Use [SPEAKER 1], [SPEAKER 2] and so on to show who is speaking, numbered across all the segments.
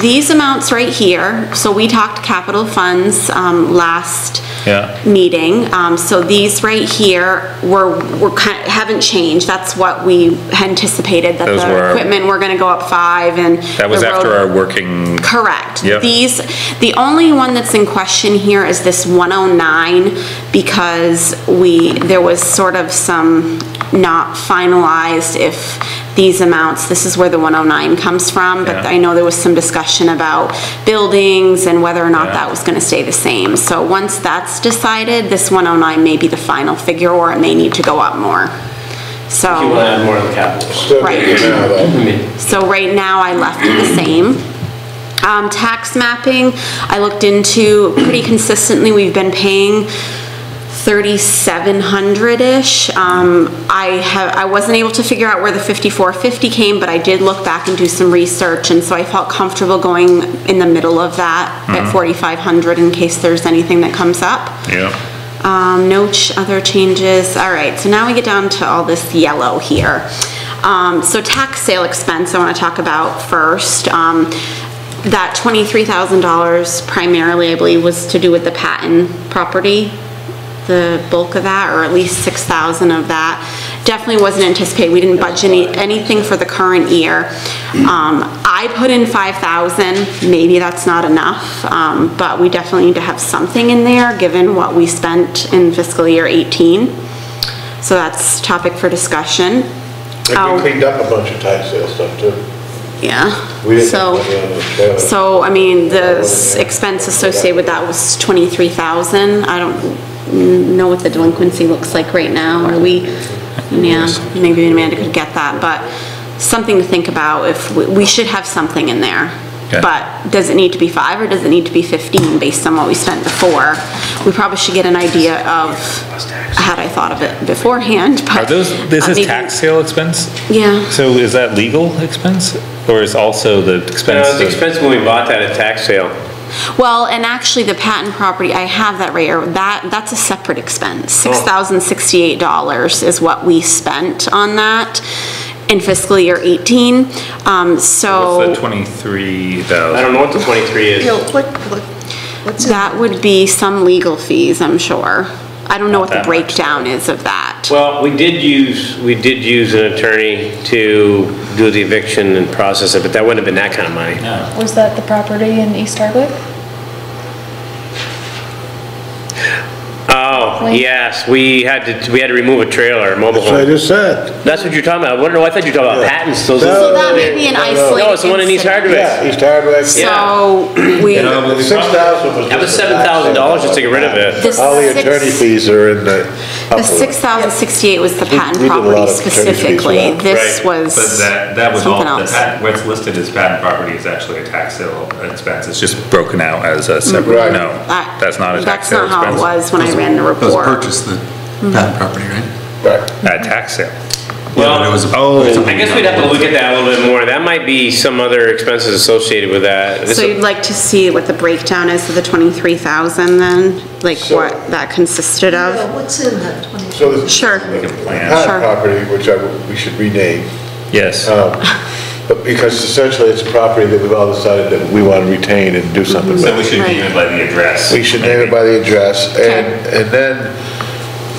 [SPEAKER 1] These amounts right here, so we talked capital funds um, last
[SPEAKER 2] Yeah.
[SPEAKER 1] meeting. Um, So these right here were, were, ki- haven't changed. That's what we anticipated, that
[SPEAKER 2] Those
[SPEAKER 1] the
[SPEAKER 2] were-
[SPEAKER 1] equipment, we're going to go up five and.
[SPEAKER 2] That was
[SPEAKER 1] the road-
[SPEAKER 2] after our working,
[SPEAKER 1] Correct.
[SPEAKER 2] Yep.
[SPEAKER 1] These, the only one that's in question here is this 109, because we, there was sort of some not finalized if these amounts, this is where the 109 comes from, but
[SPEAKER 2] Yeah.
[SPEAKER 1] I know there was some discussion about buildings and whether or not
[SPEAKER 2] Yeah.
[SPEAKER 1] that was gonna stay the same. So once that's decided, this 109 may be the final figure, or it may need to go up more.
[SPEAKER 3] You want to
[SPEAKER 1] So,
[SPEAKER 3] add more to the capital?
[SPEAKER 4] Still
[SPEAKER 1] Right.
[SPEAKER 4] getting it out of
[SPEAKER 3] I
[SPEAKER 4] that.
[SPEAKER 3] mean,
[SPEAKER 1] so right now, I left it the same. Um, tax mapping, I looked into pretty consistently, we've been paying thirty-seven hundred-ish. Um, I have, I wasn't able to figure out where the fifty-four fifty came, but I did look back and do some research, and so I felt comfortable going in the middle of that at forty-five hundred in case there's anything that comes up.
[SPEAKER 2] yeah,
[SPEAKER 1] Um, no ch- other changes, all right, so now we get down to all this yellow here. Um, so tax sale expense I wanna talk about first. Um, that twenty-three thousand dollars primarily, I believe, was to do with the Patton property, the bulk of that, or at least six thousand of that. Definitely wasn't anticipated, we didn't budget any, anything for the current year. Um, I put in five thousand, maybe that's not enough, um, but we definitely need to have something in there, given what we spent in fiscal year eighteen. So that's topic for discussion.
[SPEAKER 4] They've
[SPEAKER 1] Oh.
[SPEAKER 4] been cleaned up a bunch of tax sale stuff too.
[SPEAKER 1] Yeah,
[SPEAKER 4] We didn't have money on the
[SPEAKER 1] so,
[SPEAKER 4] trailer.
[SPEAKER 1] so, I mean, the s- expense associated with that was twenty-three thousand. I don't know what the delinquency looks like right now, are we, yeah, maybe Amanda could get that, but something to think about if, we- we should have something in there.
[SPEAKER 2] Okay.
[SPEAKER 1] But does it need to be five or does it need to be fifteen based on what we spent before? We probably should get an idea of, had I thought of it beforehand, but.
[SPEAKER 2] Are those, this
[SPEAKER 1] uh,
[SPEAKER 2] is
[SPEAKER 1] maybe-
[SPEAKER 2] tax sale expense?
[SPEAKER 1] Yeah.
[SPEAKER 2] So is that legal expense, or is also the
[SPEAKER 3] you know,
[SPEAKER 2] expense?
[SPEAKER 3] it was
[SPEAKER 2] of-
[SPEAKER 3] expensive when we bought that at tax sale.
[SPEAKER 1] Well, and actually, the patent property, I have that right here, that, that's a separate expense. $6,068 is what we spent on that in fiscal year 18, um,
[SPEAKER 2] What's the
[SPEAKER 1] so
[SPEAKER 2] twenty-three
[SPEAKER 3] I don't
[SPEAKER 2] thousand?
[SPEAKER 3] know what the 23
[SPEAKER 5] No,
[SPEAKER 3] is.
[SPEAKER 5] what, what, what's it?
[SPEAKER 1] that would be some legal fees, I'm sure. I don't know what the
[SPEAKER 2] that much.
[SPEAKER 1] breakdown is of that.
[SPEAKER 3] Well, we did use, we did use an attorney to do the eviction and process it, but that wouldn't have been that kind of money.
[SPEAKER 6] Was that the property in East Hardwick?
[SPEAKER 3] Oh, yes, we had to, we had to remove a trailer, a mobile
[SPEAKER 4] So I
[SPEAKER 3] home.
[SPEAKER 4] just said,
[SPEAKER 3] That's what you're talking about. I wonder, I thought you were talking about
[SPEAKER 4] Yeah.
[SPEAKER 3] patents, those.
[SPEAKER 4] No,
[SPEAKER 1] So that may be an
[SPEAKER 4] No, no, no.
[SPEAKER 1] isolated
[SPEAKER 3] No, it's the one in East
[SPEAKER 1] incident.
[SPEAKER 3] Hardwick.
[SPEAKER 4] yeah, East Hardwick.
[SPEAKER 1] So, we,
[SPEAKER 4] The
[SPEAKER 2] we-
[SPEAKER 4] 6,000 was.
[SPEAKER 3] That was
[SPEAKER 4] just the tax sale.
[SPEAKER 3] $7,000 just to get rid of it.
[SPEAKER 1] The
[SPEAKER 4] All the
[SPEAKER 1] six-
[SPEAKER 4] attorney fees are in the.
[SPEAKER 1] the 6,068 was the patent
[SPEAKER 4] we did a lot
[SPEAKER 1] property
[SPEAKER 4] of attorney fees for
[SPEAKER 1] specifically.
[SPEAKER 4] that.
[SPEAKER 1] This was
[SPEAKER 7] But that, that was all,
[SPEAKER 1] something
[SPEAKER 7] the
[SPEAKER 1] else.
[SPEAKER 7] patent, what's listed as patent property is actually a tax sale expense, it's just broken out as a separate,
[SPEAKER 4] Right.
[SPEAKER 7] no,
[SPEAKER 1] That-
[SPEAKER 7] that's not a tax sale
[SPEAKER 1] Mm-hmm. That's not how it
[SPEAKER 7] expense.
[SPEAKER 1] was when I ran the
[SPEAKER 8] That
[SPEAKER 1] report.
[SPEAKER 8] was purchased the patent property, right?
[SPEAKER 4] Right.
[SPEAKER 7] At tax sale.
[SPEAKER 3] Well,
[SPEAKER 8] Yeah, it was a-
[SPEAKER 2] Oh.
[SPEAKER 3] I guess we'd have to look at that a little bit more. That might be some other expenses associated with that. This
[SPEAKER 1] So you'd like to see what the breakdown is of the 23,000 then? Like what that consisted of?
[SPEAKER 5] No, What's in that 20?
[SPEAKER 4] So the.
[SPEAKER 1] Sure.
[SPEAKER 4] The
[SPEAKER 7] plan.
[SPEAKER 1] Sure.
[SPEAKER 4] Pat property, which I, would- we should rename,
[SPEAKER 2] Yes,
[SPEAKER 4] but because essentially it's a property that we've all decided that we want to retain and do something
[SPEAKER 1] Mm-hmm.
[SPEAKER 4] with.
[SPEAKER 7] So we should name it by the address.
[SPEAKER 4] We should name it by the address, and, and then,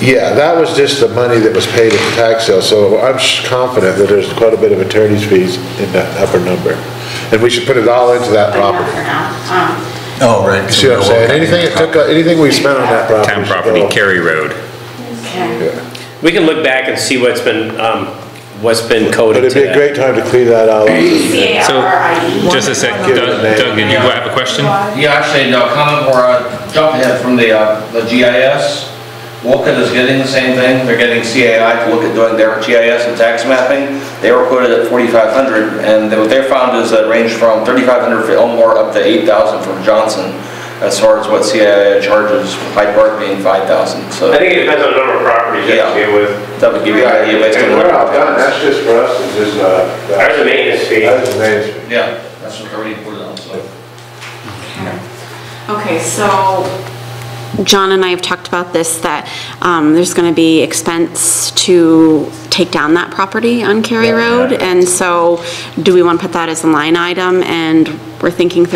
[SPEAKER 4] yeah, that was just the money that was paid at the tax sale, so I'm sh- confident that there's quite a bit of attorney's fees in that upper number. And we should put it all into that property.
[SPEAKER 8] Oh, right.
[SPEAKER 4] You see what I'm saying? Anything it took, uh, anything we spent on that property.
[SPEAKER 2] town
[SPEAKER 4] should
[SPEAKER 2] property,
[SPEAKER 4] go.
[SPEAKER 2] Cary Road.
[SPEAKER 3] We can look back and see what's been, um, what's been
[SPEAKER 4] But
[SPEAKER 3] coded
[SPEAKER 4] it'd
[SPEAKER 3] to
[SPEAKER 4] be a
[SPEAKER 3] that.
[SPEAKER 4] great time to clean that all up.
[SPEAKER 2] So, just a sec,
[SPEAKER 4] Give it
[SPEAKER 2] Doug,
[SPEAKER 4] a name.
[SPEAKER 2] Doug, did you have a question?
[SPEAKER 9] Yeah, actually, uh, no comment or a jump ahead from the, uh, the GIS. Walkett is getting the same thing, they're getting CAI to look at doing their GIS and tax mapping. They were quoted at 4,500, and what they found is that range from 3,500 for Elmore up to 8,000 from Johnson, as far as what CAI charges, Hyde Park being 5,000, so
[SPEAKER 3] I think it depends on the number of properties you have to deal with.
[SPEAKER 9] that would give you an idea based on what...
[SPEAKER 4] that's just for us, it's just, uh.
[SPEAKER 3] Ours is a maintenance fee.
[SPEAKER 4] Ours is a maintenance fee.
[SPEAKER 9] Yeah, that's what they're reporting on, so...
[SPEAKER 1] Okay, so John and I have talked about this, that um, there's going to be expense to take down that property on Cary Road. And so do we want to put that as a line item? And we're thinking